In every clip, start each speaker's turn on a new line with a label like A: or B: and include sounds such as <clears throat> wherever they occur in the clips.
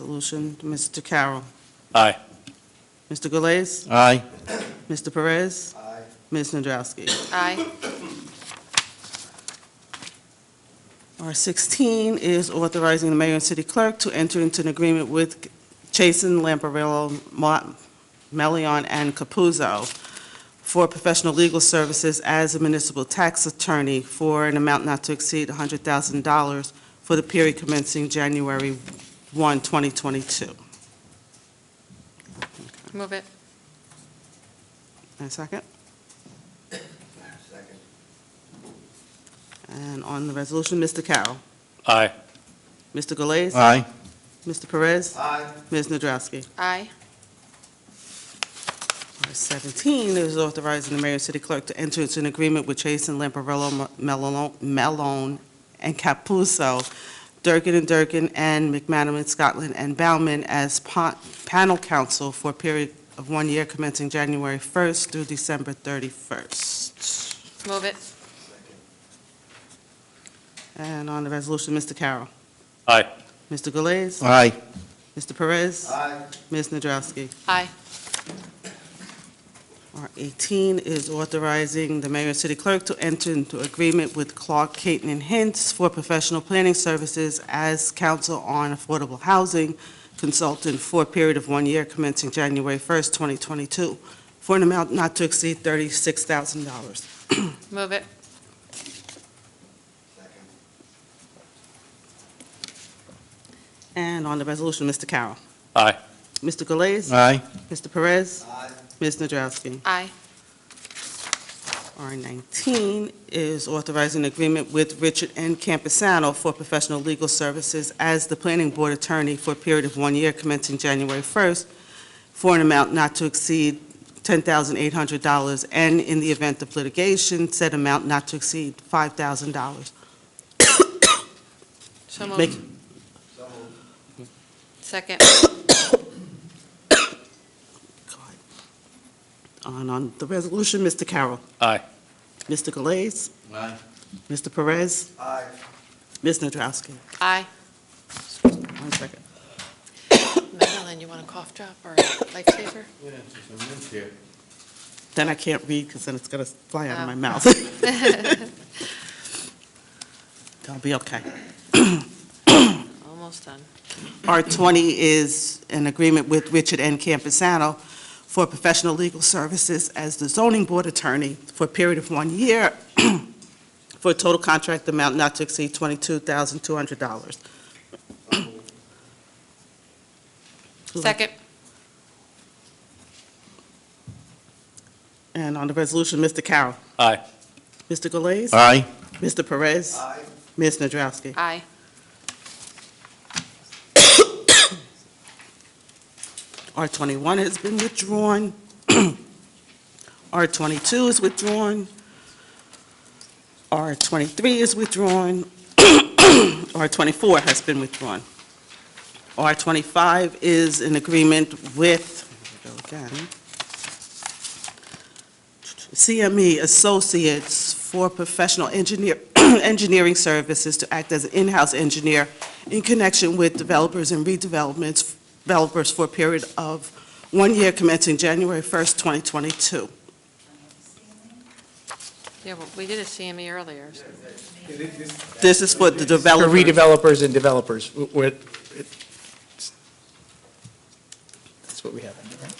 A: Resolution, Mr. Carroll.
B: Aye.
A: Mr. Galais?
B: Aye.
A: Mr. Perez? Aye. Ms. Nadrowski?
C: Aye.
A: R sixteen is authorizing the mayor and city clerk to enter into an agreement with Chasen, Lamparello, Mott, Melion, and Capuzzo for professional legal services as a municipal tax attorney for an amount not to exceed hundred thousand dollars for the period commencing January 1, 2022.
C: Move it.
A: And a second? Second. And on the resolution, Mr. Carroll.
B: Aye.
A: Mr. Galais?
B: Aye.
A: Mr. Perez? Aye. Ms. Nadrowski?
C: Aye.
A: R seventeen is authorizing the mayor and city clerk to enter into an agreement with Chasen, Lamparello, Melon- Melon, and Capuzzo, Durkin and Durkin, and McManaman, Scotland, and Bauman as pa- panel counsel for a period of one year commencing January first through December thirty-first.
C: Move it.
A: And on the resolution, Mr. Carroll.
B: Aye.
A: Mr. Galais?
B: Aye.
A: Mr. Perez? Aye. Ms. Nadrowski?
C: Aye.
A: R18 is authorizing the mayor and city clerk to enter into agreement with Clark, Caton, and Hintz for professional planning services as counsel on affordable housing consultant for a period of one year commencing January 1st, 2022, for an amount not to exceed $36,000.
C: Move it.
A: And on the resolution, Mr. Carroll.
B: Aye.
A: Mr. Galais?
B: Aye.
A: Mr. Perez? Ms. Nadrowski?
C: Aye.
A: R19 is authorizing agreement with Richard N. Campusano for professional legal services as the planning board attorney for a period of one year commencing January 1st for an amount not to exceed $10,800, and in the event of litigation, said amount not to exceed $5,000.
C: So
A: Make-
C: moved. Second.
A: God. And on the resolution, Mr. Carroll.
B: Aye.
A: Mr. Galais.
B: Aye.
A: Mr. Perez. Aye. Ms. Nadrowski.
C: Aye.
A: One second.
C: Madeline, you want a cough drop or a lifesaver?
A: Then I can't read because then it's going to fly out of my
C: Oh.
A: mouth. <laughs> I'll be okay.
C: Almost done.
A: R20 is an agreement with Richard N. Campusano for professional legal services as the zoning board attorney for a period of one year <clears throat> for a total contract amount not to exceed $22,200.
C: Second.
A: And on the resolution, Mr. Carroll.
B: Aye.
A: Mr. Galais.
B: Aye.
A: Mr. Perez. Aye. Ms. Nadrowski.
C: Aye.
A: R21 has been withdrawn. <clears throat> R22 is withdrawn. R23 is withdrawn. <clears throat> R24 has been withdrawn. R25 is an agreement with, here we go again, CME E Associates for professional engineer, <clears throat> engineering services to act as an in-house engineer in connection with developers and redevelopments developers for a period of one year commencing January 1st, 2022.
C: Yeah, well, we did a CME earlier. so-
A: This is for the
D: For
A: developers.
D: redevelopers and developers, w- w- it- that's what we have. in there, right?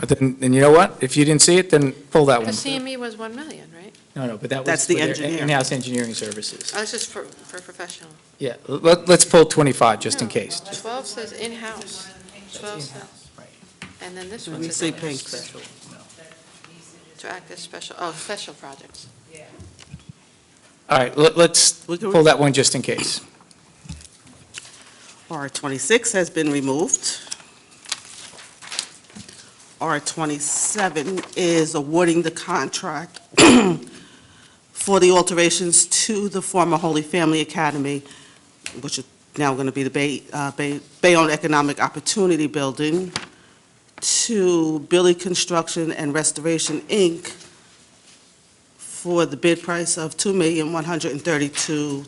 D: But Then, then you know what? If you didn't see it, then pull that
C: The
D: one.
C: CME was 1 million, right?
D: No, no, but that was.
A: That's the
D: for their
A: engineer.
D: In-house engineering services.
C: Oh, That's just for, for professional.
D: Yeah, let, let's pull 25, just in case.
C: 12 says in-house. 12 says,
D: Right.
C: and then this
A: Let
C: one
A: me
C: says
A: see,
C: in-house.
A: Pink.
D: Special, no.
C: To act as special, oh, special projects.
D: All right, let- let's
A: We can-
D: pull that one just in case.
A: R26 has been removed. R27 is awarding the contract <clears throat> for the alterations to the former Holy Family Academy, which is now going to be the Bay- uh, Bay- Bayonne Economic Opportunity Building, to Billy Construction and Restoration, Inc., for the bid price of two million one hundred and thirty-two